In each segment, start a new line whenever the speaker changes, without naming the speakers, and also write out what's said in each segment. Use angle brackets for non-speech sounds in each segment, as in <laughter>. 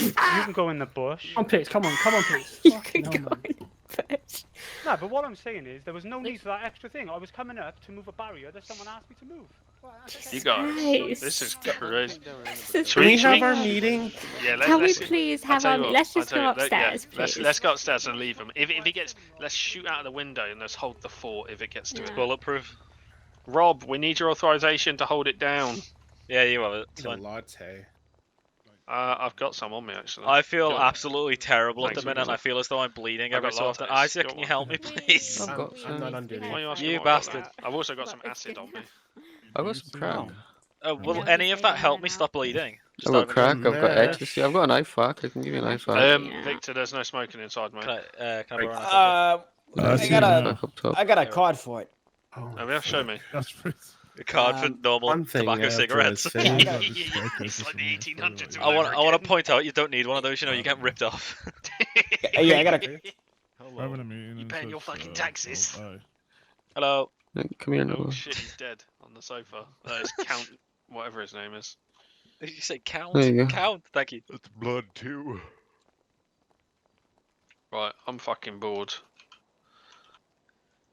you can go in the bush.
Come
Um,
on, pigs. Come on, come on, pigs.
You
Fucking
can
hell,
go
man.
in first.
No, but what I'm saying is there was no need for that extra thing. I was coming up to move a barrier that someone asked me to move.
You guys,
Christ. <laughs>
this is crazy.
Uh,
This is
Should
Can we
should
have our meeting?
Yeah, let,
Can we
let's,
please
I'll
have
tell
our?
you what,
Let's
I'll
just
tell
go
you, let- yeah,
upstairs,
let's,
please.
let's go upstairs and leave him. If, if he gets, let's shoot out the window and let's hold the fort if it gets to
Yeah.
it. Bulletproof. Rob, we need your authorization to hold
<laughs>
it down.
Yeah, you have it. It's
It's a
fine.
latte.
Uh, I've got some on me actually.
I feel
Go on.
absolutely terrible at
Thanks,
the minute.
Miguel.
I feel as though I'm bleeding
I've
every
got
so often.
lattes.
Isaac,
Go
can
on.
you help
<laughs>
me, please?
I've
got some. I'm not under
Why are you
You
asking me about
bastard.
that? I've also got some acid on me.
I've got some crack.
Uh, will
Yeah.
any of that help
Yeah.
me stop bleeding?
I've
Just
got
out of
crack. I've got
mess.
ecstasy. I've got an IFAC. I can give you an IFAC.
Um,
Yeah.
Victor, there's no smoking inside, mate.
interest. Can I, uh, can I borrow an apple?
Uh,
Uh,
I got a,
IFAC up top.
I got a card for it.
Oh,
Oh, yeah, show me.
That's pretty-
A card for
um,
normal
One thing
tobacco
after I
cigarettes.
say is
Yeah,
I'll just
yeah,
break
yeah,
this
it's like
as
the
well,
1800s
so
<laughs> I
over
want. I want
again.
to point out you don't need one of those. You
Oh.
know, you get ripped off. <laughs>
<laughs>
Oh, Yeah, I got a.
we're having a meeting
You
in
paying your
such,
fucking
uh,
taxes.
oh,
Hello.
No, Come here,
Oh
Noah.
shit, he's dead on the sofa. That is Count, whatever his name is.
Did you say count?
There you go.
Count. Thank you.
It's blood too.
Right, I'm fucking bored.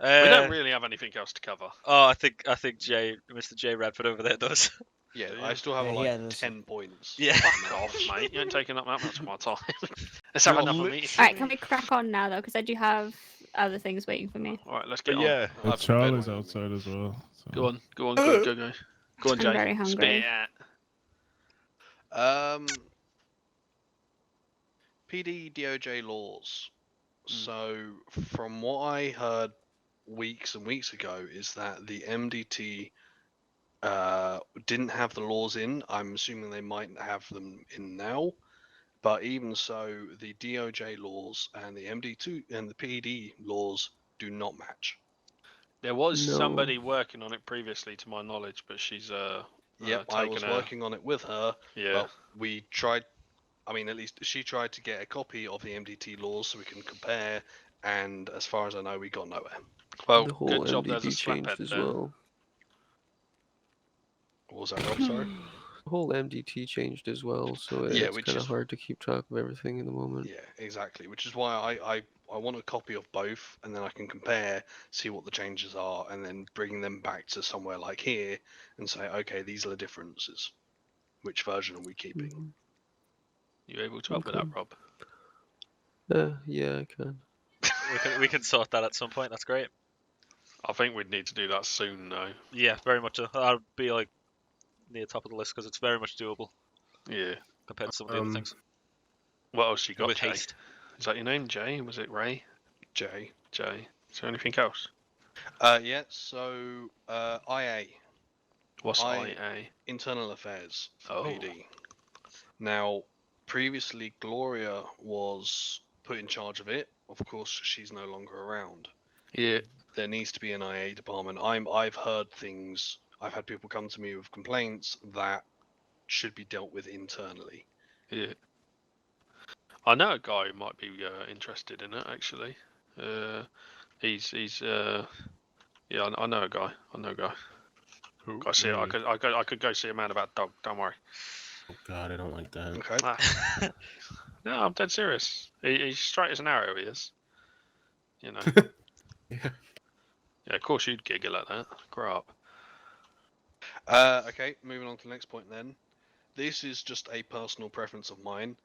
Uh,
we don't really have anything else to cover.
Oh, I think I think Jay, Mr. Jay Radford over there does. <laughs>
Yeah,
yeah.
I still have
Yeah,
like
yeah, that's-
ten points.
Yeah.
Fuck <laughs> off, mate. You ain't taking up that much of my <laughs> time. Let's have
You're
another meeting.
All right, can we crack on now though? Because I do have other things waiting for me.
All right, let's
But
get on.
yeah,
I'll have a bed.
Charlie's outside as well. So.
Go on, go on, go, go, go. Go on,
I'm
Jay.
very hungry.
Spit it out.
Um, PD DOJ laws.
Hmm.
So, from what I heard weeks and weeks ago, is that the MDT uh, didn't have the laws in. I'm assuming they might have them in now. But even so, the DOJ laws and the MD2 and the PD laws do not match.
There was
No.
somebody working on it previously, to my knowledge, but she's uh.
Yep,
uh,
I
taken
was
a-
working on it with her.
Yeah.
Well, we tried. I mean, at least she tried to get a copy of the MDT laws so we can compare. And as far as I know, we got nowhere.
Well,
Oh,
the whole
good job. There's a
MDT changed
slaphead
as
there.
well.
What was that Rob? Sorry.
<sighs> The whole MDT changed as well, so
Yeah,
it's
which
kind of
is-
hard to keep track of everything in the moment.
yeah, exactly. Which is why I, I I want a copy of both, and then I can compare, see what the changes are, and then bring them back to somewhere like here and say, okay, these are the differences. Which version are we keeping?
Mhm.
You able to help with that,
Okay.
Rob?
Uh, yeah, I can.
We can we can sort that at some point. That's great.
I think we'd need to do that soon, though.
Yeah, very much. so. That'd be like near top of the list because it's very much doable
Yeah.
compared to some of the other
Um,
things.
What else you got,
With
Jay?
haste.
Is that your name, Jay? Was it Ray?
Jay.
Jay. Is there anything else?
Uh, yeah. So uh, IA
What's
I-
IA?
Internal Affairs
Oh.
PD. Now, previously Gloria was put in charge of it. Of course, she's no longer around.
Yeah.
There needs to be an IA department. I'm I've heard things. I've had people come to me with complaints that should be dealt with internally.
Yeah. I know a guy who might be uh, interested in it actually. Uh, he's he's uh, yeah. I, I know a guy. I know a guy.
Who?
I see. I
Mm.
could I could I could go see a man about dog. Don't worry.
Oh God, I don't like that.
Okay.
Ah. no, I'm dead serious. He, he's straight as an arrow. He is. You know.
Yeah.
Yeah. Of course you'd giggle at that. Grow up.
Uh, okay, moving on to the next point then. This is just a personal preference of mine.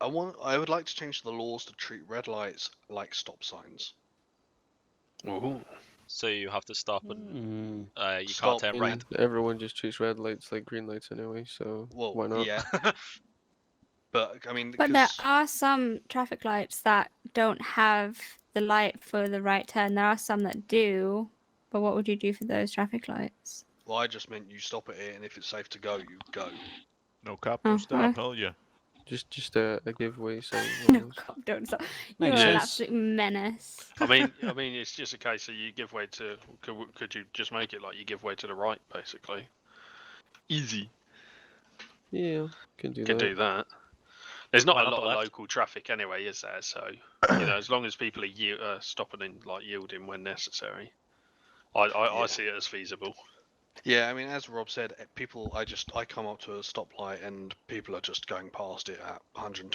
I want I would like to change the laws to treat red lights like stop signs.
Ooh.
So you have to stop
Hmm.
Mm.
and uh, you
Stop
can't turn
And
right.
Everyone just treats red lights like green lights anyway, so
Well,
why not?
yeah. <laughs> but I mean,
But there
'cause-
are some traffic lights that don't have the light for the right turn. There are some that do. But what would you do for those traffic lights? <laughs>
Well, I just meant you stop at it, and if it's safe to go, you go.
No cop,
Oh,
no stop,
alright.
hell yeah.
Just, just a, a giveaway sign.
No, God, don't stop. You're
Makes
an
sense.
absolute menace.
I mean, I mean, it's just a case of you give way to. Could, w- could you just make it like you give way to the right, basically? Easy.
Yeah, can do
Could
that.
do that. There's not
Why
a
not
lot
the
of
left?
local traffic anyway, is there? So you know, as long as people are yield, uh, stopping and like yielding when necessary, I I,
Yeah.
I see it as feasible.
Yeah, I mean, as Rob said, eh, people. I just I come up to a stoplight, and people are just going past it at 120